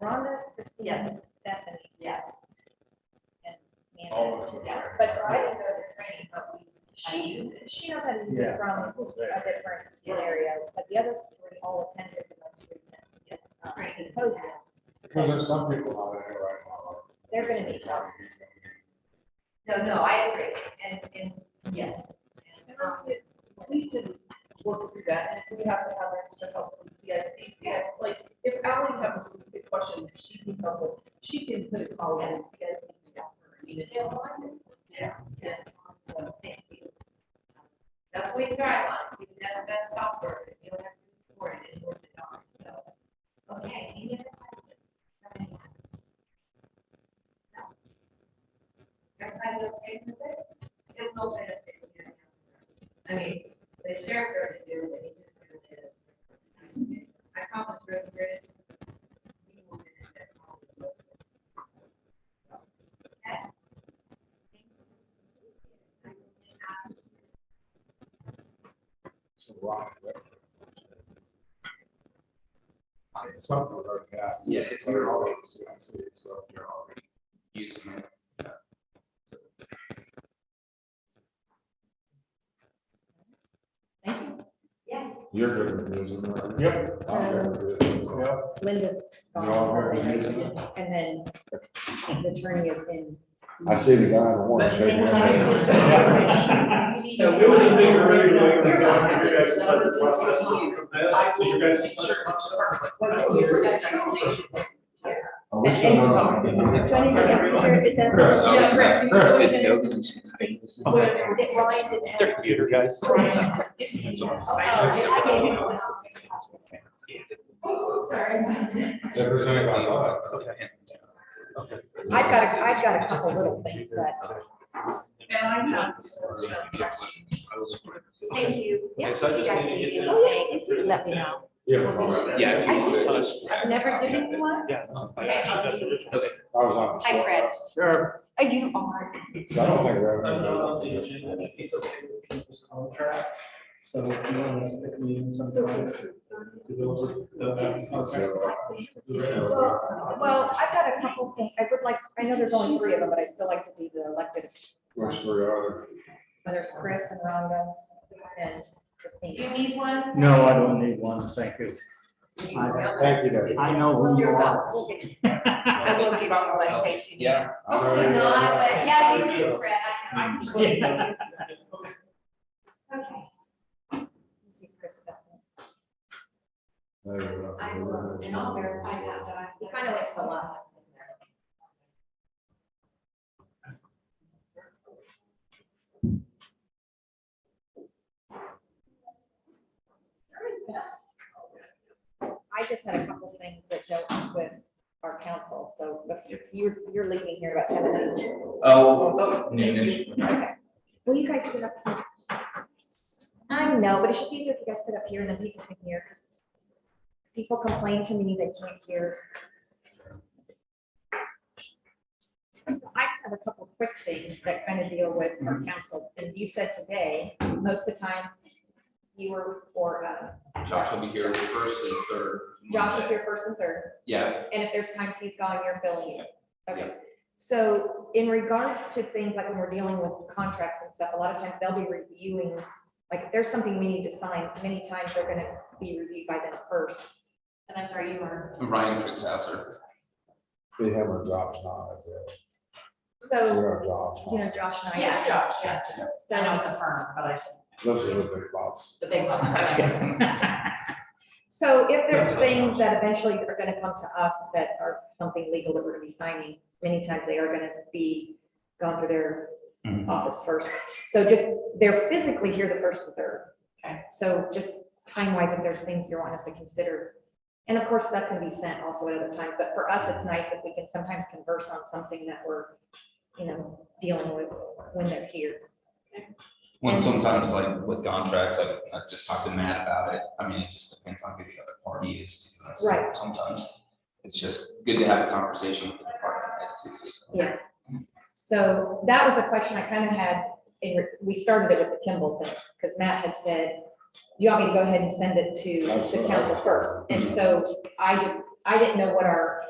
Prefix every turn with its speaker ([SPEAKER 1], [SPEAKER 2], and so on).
[SPEAKER 1] Rhonda, Christina,
[SPEAKER 2] Yes.
[SPEAKER 1] Stephanie,
[SPEAKER 2] Yeah,
[SPEAKER 1] and
[SPEAKER 3] All
[SPEAKER 1] Amanda.
[SPEAKER 3] of them.
[SPEAKER 2] yeah,
[SPEAKER 3] right?
[SPEAKER 2] but I didn't go to training, but we.
[SPEAKER 1] She, she knows how to use
[SPEAKER 4] Yeah.
[SPEAKER 1] it from a different scenario, but the other three all attended the most recent. um,
[SPEAKER 2] Right.
[SPEAKER 1] symposium.
[SPEAKER 3] Because there's some people out there right now.
[SPEAKER 1] They're gonna be tough.
[SPEAKER 2] No, no, I agree, and, and, yes. And, um,
[SPEAKER 5] We can work through that, and if we have to have extra help from CIC, yes, like, if Ally has a specific question that she can help with, she can put a call in, CIC can help her. I mean, if they want
[SPEAKER 2] Yeah, yes, so, thank you. That's what we strive on, we can have the best software, if you don't have to support it, it's worth it on, so. Okay, any other questions? No. Everybody okay with it? It will benefit you. I mean, the sheriff already do, but he just kind of did. I promise, Rose, Rose, we will finish that problem. Okay.
[SPEAKER 3] I mean, some of them are, yeah.
[SPEAKER 6] Yeah, it's-
[SPEAKER 3] They're all, I see, so they're all.
[SPEAKER 6] using it.
[SPEAKER 1] Thank you.
[SPEAKER 2] Yes.
[SPEAKER 3] You're good with using it, right?
[SPEAKER 4] Yep.
[SPEAKER 3] I'm good with it, so- Yep.
[SPEAKER 1] Linda's
[SPEAKER 3] You're all
[SPEAKER 1] gone,
[SPEAKER 3] good with using it?
[SPEAKER 1] and then the attorney is in.
[SPEAKER 3] I see the guy in the orange.
[SPEAKER 2] But-
[SPEAKER 3] shaking his head.
[SPEAKER 4] So it was a big array, like,
[SPEAKER 2] You're
[SPEAKER 4] you
[SPEAKER 2] welcome.
[SPEAKER 4] guys started the process, you confessed, you guys.
[SPEAKER 3] I wish I
[SPEAKER 1] Do I need to get a picture? Is that-
[SPEAKER 3] Chris, I
[SPEAKER 5] Yeah, Chris, you
[SPEAKER 3] Chris,
[SPEAKER 5] can-
[SPEAKER 1] That Ryan didn't have.
[SPEAKER 6] Their computer guys.
[SPEAKER 4] Oh,
[SPEAKER 5] Right.
[SPEAKER 3] If there's anybody left.
[SPEAKER 1] I've got, a- I've got a couple little things that,
[SPEAKER 5] And I have.
[SPEAKER 2] Thank you.
[SPEAKER 4] Okay, so I just need to get this-
[SPEAKER 1] oh, yeah, let me know.
[SPEAKER 3] Yeah. all right.
[SPEAKER 6] Yeah. if you would,
[SPEAKER 3] I
[SPEAKER 6] just-
[SPEAKER 1] I've never given you one.
[SPEAKER 4] Yeah.
[SPEAKER 2] Okay, I'll be-
[SPEAKER 6] Okay.
[SPEAKER 3] was on. the
[SPEAKER 2] Hi, Uh, Fred.
[SPEAKER 4] Sure.
[SPEAKER 1] Oh, You are.
[SPEAKER 3] So I don't think we're
[SPEAKER 4] I
[SPEAKER 3] having.
[SPEAKER 4] don't know, the agenda, it's okay with people's contract, so if you want us to meet in some time. uh,
[SPEAKER 3] uh,
[SPEAKER 1] Well, I've got a couple things, I would like, I know there's only three of them, but I still like to be the elected,
[SPEAKER 3] Which we are.
[SPEAKER 1] whether it's Chris and Rhonda and
[SPEAKER 2] You
[SPEAKER 1] Christine.
[SPEAKER 2] need one?
[SPEAKER 7] No, I don't need one, thank you.
[SPEAKER 3] Thank you, Dave.
[SPEAKER 7] I know who you
[SPEAKER 2] You're
[SPEAKER 7] are.
[SPEAKER 2] welcome. We'll get- I will give on the case you need.
[SPEAKER 6] Yeah.
[SPEAKER 2] Hopefully not, but yeah, you do, Fred.
[SPEAKER 7] Mm.
[SPEAKER 2] I know.
[SPEAKER 7] Yeah.
[SPEAKER 2] Okay.
[SPEAKER 1] Usually Chris is up there.
[SPEAKER 2] I will, and I'll verify that, but I.
[SPEAKER 1] He kind of likes the lot. I just had a couple things that don't with our council, so if you're, you're leaving here about ten minutes.
[SPEAKER 6] Oh, noonish.
[SPEAKER 1] Okay. Will you guys sit up? here? I know, but it's just easier if you guys sit up here and then people can hear, because people complain to me they can't hear. I just have a couple quick things that kind of deal with our council, and you said today, most of the time, you were, or uh,
[SPEAKER 6] Josh will be here first and third.
[SPEAKER 1] Josh is here first and third,
[SPEAKER 6] Yeah,
[SPEAKER 1] and if there's times he's gone, you're filling in. Okay,
[SPEAKER 6] Yeah.
[SPEAKER 1] so in regards to things like when we're dealing with contracts and stuff, a lot of times they'll be reviewing, like if there's something we need to sign, many times they're gonna be reviewed by them first. And I'm sorry, you are.
[SPEAKER 6] Ryan Tritzhauser.
[SPEAKER 3] They have our jobs now, that's it. We
[SPEAKER 1] So,
[SPEAKER 3] have jobs
[SPEAKER 1] you
[SPEAKER 3] now.
[SPEAKER 1] know, Josh and I.
[SPEAKER 2] Yeah, Josh, yeah,
[SPEAKER 1] just-
[SPEAKER 2] I know it's a firm, but I just,
[SPEAKER 3] This is a big box.
[SPEAKER 2] the big one.
[SPEAKER 1] So if there's
[SPEAKER 6] That's
[SPEAKER 1] things that eventually are gonna come to us that are something legal that we're gonna be signing, many times they are gonna be gone through their
[SPEAKER 7] Mm-hmm.
[SPEAKER 6] Mhm.
[SPEAKER 1] office Uh, first. So just, they're physically here the first and third.
[SPEAKER 2] Okay.
[SPEAKER 1] So just time wise, if there's things you want us to consider. And of course, that can be sent also at other times, but for us, it's nice if we can sometimes converse on something that we're, you know, dealing with when they're here.
[SPEAKER 6] When sometimes like with contracts, like I just talked to Matt about it. I mean, it just depends on who the other party is. too. So
[SPEAKER 1] Right.
[SPEAKER 6] Sometimes it's just good to have a conversation with the party too. so.
[SPEAKER 1] Yeah. So that was a question I kind of had, in re- we started it with the Kimball thing, because Matt had said, you want me to go ahead and send it to the council first? And so I just, I didn't know what our